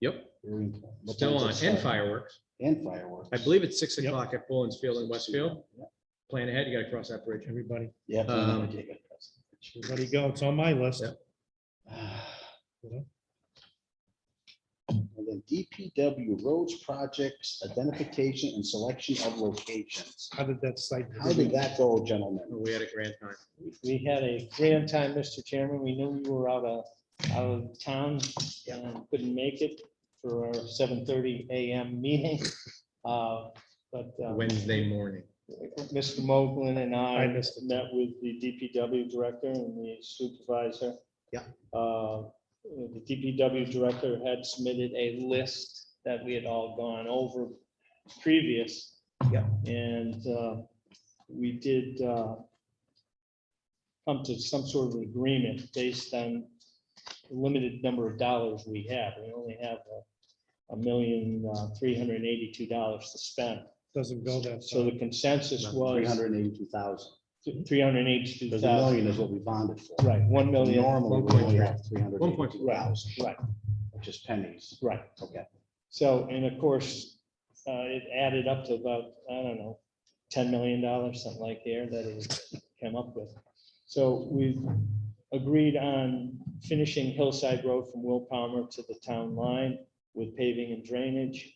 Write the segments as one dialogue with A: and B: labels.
A: Yep,
B: Very- but
A: still on,
B: that's
A: and
B: exciting.
A: fireworks.
B: And fireworks.
A: I believe it's six
C: Yep.
A: o'clock at Bullens Field in Westfield. Plan ahead, you gotta cross that bridge.
C: Everybody,
B: Yeah. plan on
A: um,
B: taking it.
C: everybody go. It's on my list.
A: Yep.
B: And then DPW roads projects, identification and selection of locations.
C: How did that site?
B: How did that go, gentlemen?
A: We had a grand time.
D: We had a grand time, Mr. Chairman. We knew we were out of, out of town and couldn't make it for our seven thirty AM meeting. Uh, But uh,
A: Wednesday morning.
D: Mr. Moglen and
C: I
D: I
C: missed
D: met with the DPW director and the supervisor.
B: Yeah.
D: Uh, The DPW director had submitted a list that we had all gone over previous.
B: Yeah.
D: And uh, we did uh, come to some sort of agreement based on the limited number of dollars we have. We only have a- a million, uh, three hundred and eighty-two dollars to spend.
C: Doesn't go that.
D: So
C: far.
D: the consensus
B: Three
D: was
B: hundred and eighty-two thousand.
D: three hundred and eighty-two
B: Because a million is
D: thousand.
B: what we bonded for.
D: Right, one million,
B: Normally, we only have three hundred and
A: 1.3.
B: eighty-two thousand,
D: right,
B: which is pennies.
D: right.
B: Okay.
D: So, and of course, uh, it added up to about, I don't know, ten million dollars, something like there that it came up with. So we've agreed on finishing Hillside Road from Will Palmer to the town line with paving and drainage.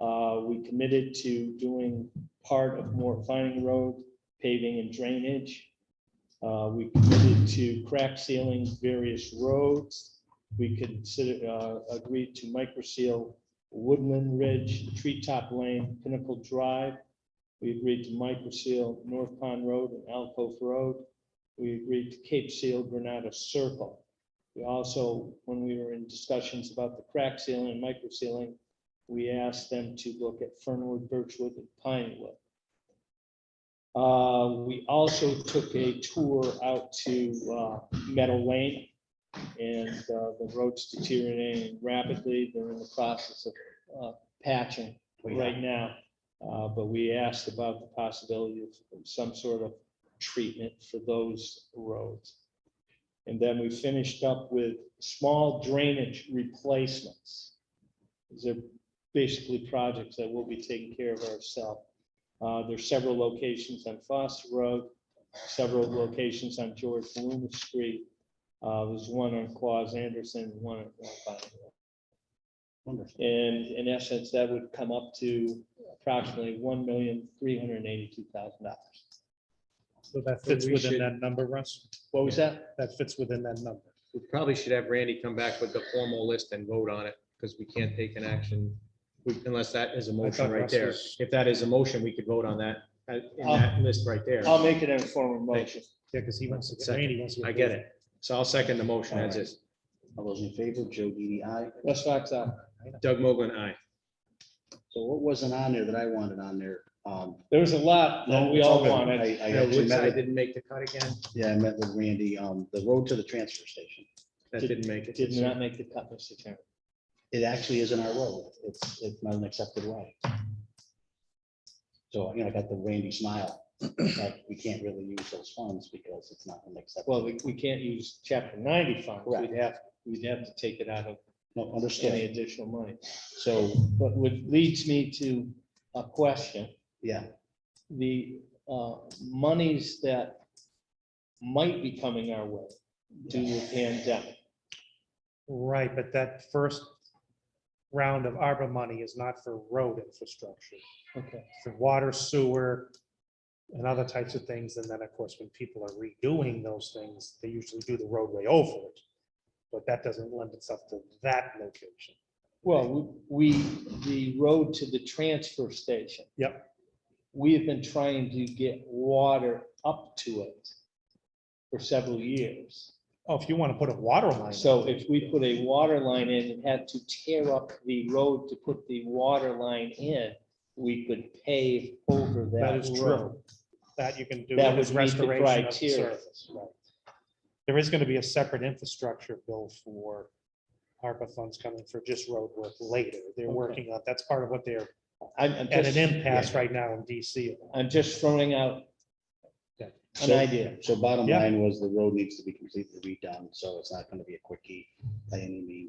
D: Uh, we committed to doing part of Moore Planning Road paving and drainage. Uh, we committed to crack sealing various roads. We consider, uh, agreed to micro seal Woodland Ridge, Treetop Lane, Pinnacle Drive. We agreed to micro seal North Pond Road and Alcove Road. We agreed to Cape Seal Granada Circle. We also, when we were in discussions about the crack sealing and micro sealing, we asked them to look at Fernwood, Birchwood, and Pinewood. Uh, We also took a tour out to uh, Meadow Lane, and uh, the road's deteriorating rapidly. They're in the process of uh, patching right now. Uh, But we asked about the possibility of some sort of treatment for those roads. And then we finished up with small drainage replacements. These are basically projects that we'll be taking care of ourselves. Uh, There's several locations on Foster Road, several locations on George Loomis Street. Uh, There's one on Claus Anderson, one on Alpine Road.
B: Wonderful.
D: And in essence, that would come up to approximately one million, three hundred and eighty-two thousand dollars.
C: So that fits
A: we
C: within
A: should-
C: that number, Russ.
D: What was that?
C: That fits within that number.
A: We probably should have Randy come back with the formal list and vote on it, because we can't take an action we- unless that is a motion
C: thought
A: right
C: Russ
A: there.
C: was-
A: If that is a motion, we could vote on that, uh, in
D: I'll-
A: that list right there.
D: I'll make it an informal motion.
C: Yeah, because he wants to,
A: Second.
C: Randy wants to.
A: I get it. So I'll second the motion as is.
B: All those in favor, Joe DDI.
D: Russ Fox out.
A: Doug Mogul, aye.
B: So what wasn't on there that I wanted on there? Um,
D: There was a lot that we
B: it's
D: all
B: okay.
D: wanted.
B: I- I
A: No,
B: actually met
A: Woodside
B: with-
A: didn't make the cut again.
B: Yeah, I met with Randy, um, the road to the transfer station.
A: That
D: Did-
A: didn't make
D: It
A: it.
D: did not make the cut, Mr. Chairman.
B: It actually isn't our road. It's, it's not an accepted way. So, you know, I got the Randy smile, but we can't really use those funds because it's not an
D: Well,
B: acceptable.
D: we, we can't use chapter ninety funds.
B: Correct.
D: We'd have, we'd have to take it out of
B: No,
D: any
B: understood.
D: additional money.
B: So,
D: But what leads me to a question.
B: yeah,
D: the uh, monies that might be coming our way due to the pandemic.
C: Right, but that first round of ARPA money is not for road infrastructure.
D: Okay.
C: for water, sewer, and other types of things. And then, of course, when people are redoing those things, they usually do the roadway over it. But that doesn't lend itself to that location.
D: Well, we, the road to the transfer station.
C: Yep.
D: We have been trying to get water up to it for several years.
C: Oh, if you want to put a water line.
D: So if we put a water line in and had to tear up the road to put the water line in, we could pave over
C: That
D: that
C: is
D: road.
C: true. That you can do.
D: That
C: as
D: would meet the
C: restoration of the
D: criteria.
C: surface, right. There is going to be a separate infrastructure bill for ARPA funds coming for just road work later. They're
D: Okay.
C: working on, that's part of what they're
D: I'm, I'm
C: at an
D: just,
C: impasse right now in DC. about.
D: I'm just throwing out
C: Okay.
D: an
B: So-
D: idea.
B: so bottom
C: Yeah.
B: line was the road needs to be completely redone, so it's not gonna be a quickie by any means.